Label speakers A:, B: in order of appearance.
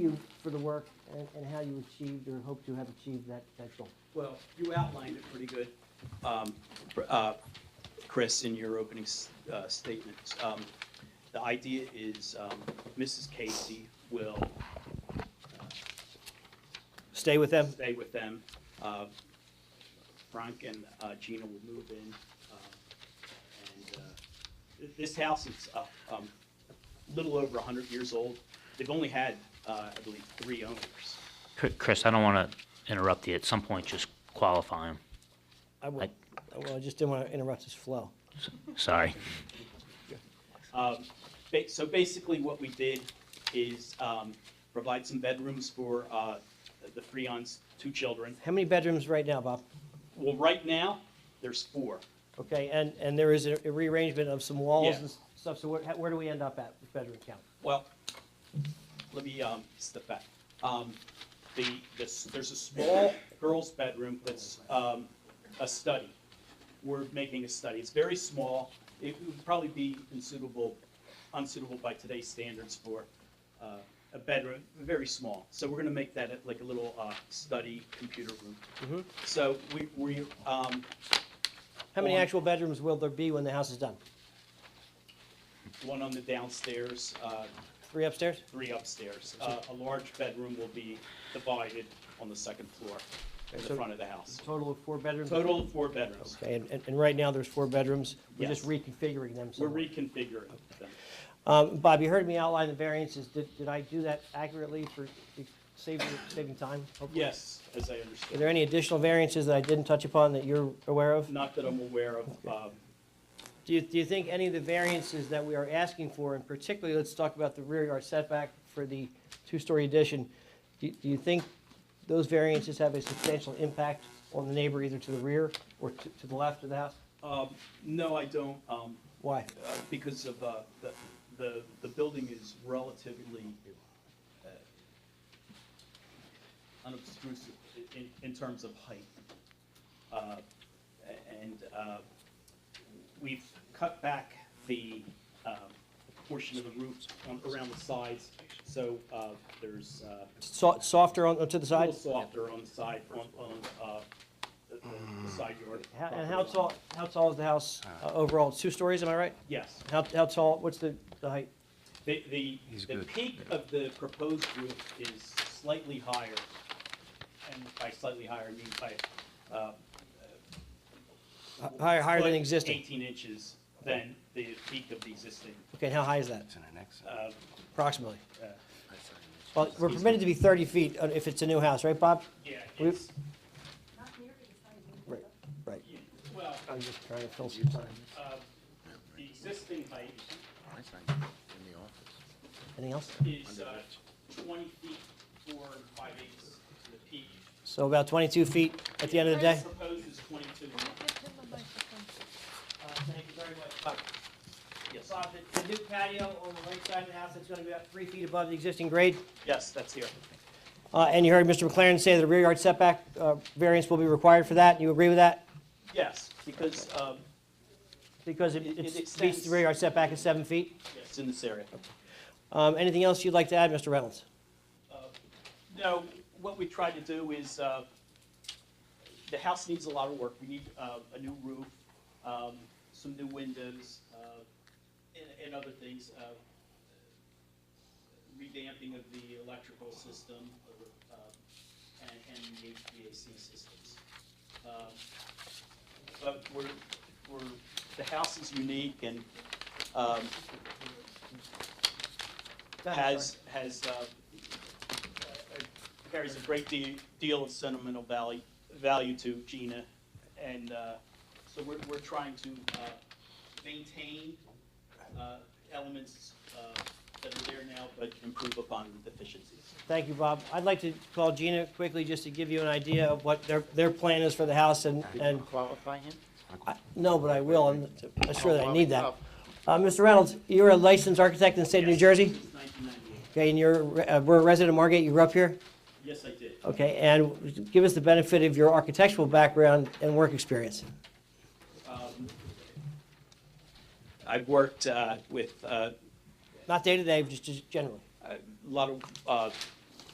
A: you for the work and, and how you achieved or hope to have achieved that, that goal.
B: Well, you outlined it pretty good, um, pr- uh, Chris, in your opening s- uh, statements. Um, The idea is um, Mrs. Casey will uh,
C: Stay with them.
B: stay with them. Uh, Frank and uh, Gina will move in. uh, And uh, th- this house is uh, um, a little over 100 years old. They've only had, uh, I believe, three owners.
D: Chr- Chris, I don't want to interrupt you. At some point, just qualify him.
C: I will,
D: I-
C: I will, I just didn't want to interrupt his flow.
D: Sorry.
B: Um, ba- So basically, what we did is um, provide some bedrooms for uh, the Freon's two children.
C: How many bedrooms right now, Bob?
B: Well, right now, there's four.
C: Okay, and, and there is a a rearrangement of some walls
B: Yeah.
C: and stuff, so where, where do we end up at with bedroom count?
B: Well, let me um, step back. Um, The, this- there's a small girl's bedroom that's um, a study. We're making a study. It's very small. It would probably be unsuitable, unsuitable by today's standards for uh, a bedroom, very small. So we're gonna make that like a little uh, study computer room.
C: Mhm.
B: So we, we, um,
C: How many
B: One.
C: actual bedrooms will there be when the house is done?
B: one on the downstairs, uh,
C: Three upstairs?
B: three upstairs. Uh, A large bedroom will be divided on the second floor in the
C: So-
B: front of the house.
C: Total of four bedrooms?
B: Total of four bedrooms.
C: Okay, and, and- and right now there's four bedrooms, we're just
B: Yes.
C: reconfiguring them
B: We're
C: somewhat.
B: reconfiguring them.
C: Um, Bob, you heard me outline the variances, did, did I do that accurately for saving, saving time? hopefully?
B: Yes, as I
C: Are
B: understand.
C: there any additional variances that I didn't touch upon that you're aware of?
B: Not that I'm aware of. um,
C: Do you, do you think any of the variances that we are asking for, and particularly, let's talk about the rear yard setback for the two-story addition, do, do you think those variances have a substantial impact on the neighbor either to the rear or to, to the left of the house?
B: um, No, I don't, um,
C: Why?
B: uh, because of, uh, the- the, the building is relatively uh, unobtrusive i- in, in terms of height. Uh, a- And uh, we've cut back the um, portion of the roof on- around the sides, so uh, there's uh,
C: So, softer on, to the
B: a little
C: side?
B: softer on the side, on, on uh, the- the the side yard.
C: How- And how
B: property
C: tall,
B: line.
C: how tall is the house uh, overall? It's Two stories, am I right?
B: Yes.
C: How, how tall, what's the, the height?
B: The, the,
E: He's
B: the
E: good.
B: peak of the proposed roof is slightly higher, and by slightly higher, I mean by, uh.
C: Hi- Higher, higher than
B: foot,
C: existing?
B: Eighteen inches than the peak of the existing,
C: Okay, and how high is that
E: It's in an exit.
B: uh,
C: approximately?
B: uh,
C: Well, we're permitted to be 30 feet uh, if it's a new house, right, Bob?
B: yeah,
C: We-
B: it's,
C: Right, right.
B: well,
C: I'm just trying to fill some time.
B: uh, the existing height
E: It's like In the office.
C: Anything else?
B: is, uh, twenty feet, four and five eighths to the peak.
C: So about 22 feet at the end of the day?
B: Proposed is twenty-two.
C: Thank you very much.
B: Yes,
C: Bob, the the new patio on the right side of the house, it's going to be about three feet above the existing grade.
B: yes, that's here.
C: Uh, And you heard Mr. McLaren say that a rear yard setback uh, variance will be required for that. You agree with that?
B: Yes, because, um,
C: Because it
B: It- it
C: it's- beats
B: extends.
C: the rear yard setback at seven feet.
B: yes, in this area.
C: Um, Anything else you'd like to add, Mr. Reynolds?
B: No, what we tried to do is, uh, the house needs a lot of work. We need uh, a new roof, um, some new windows, uh, and and other things. uh, Revamping of the electrical system uh, and and the HVAC systems. Um, But we're, we're, the house is unique and um,
C: Go ahead,
B: has, has, uh, carries a great de- deal of sentimental value, value to Gina. And uh, so we're, we're trying to uh, maintain uh, elements uh, that are there now, but improve upon the deficiencies.
C: Thank you, Bob. I'd like to call Gina quickly just to give you an idea of what their, their plan is for the house and, and,
F: qualify him?
C: I- no, but I will, I'm not sure that I need that. Uh, Mr. Reynolds, you're a licensed architect in the state of New
B: Yes,
C: Jersey?
B: since 1998.
C: Okay, and you're, re- uh, we're a resident of Margate, you grew up here?
B: Yes, I did.
C: Okay, and give us the benefit of your architectural background and work experience.
B: Um, I've worked uh, with uh,
C: Not day-to-day, just, just generally.
B: a lot of uh,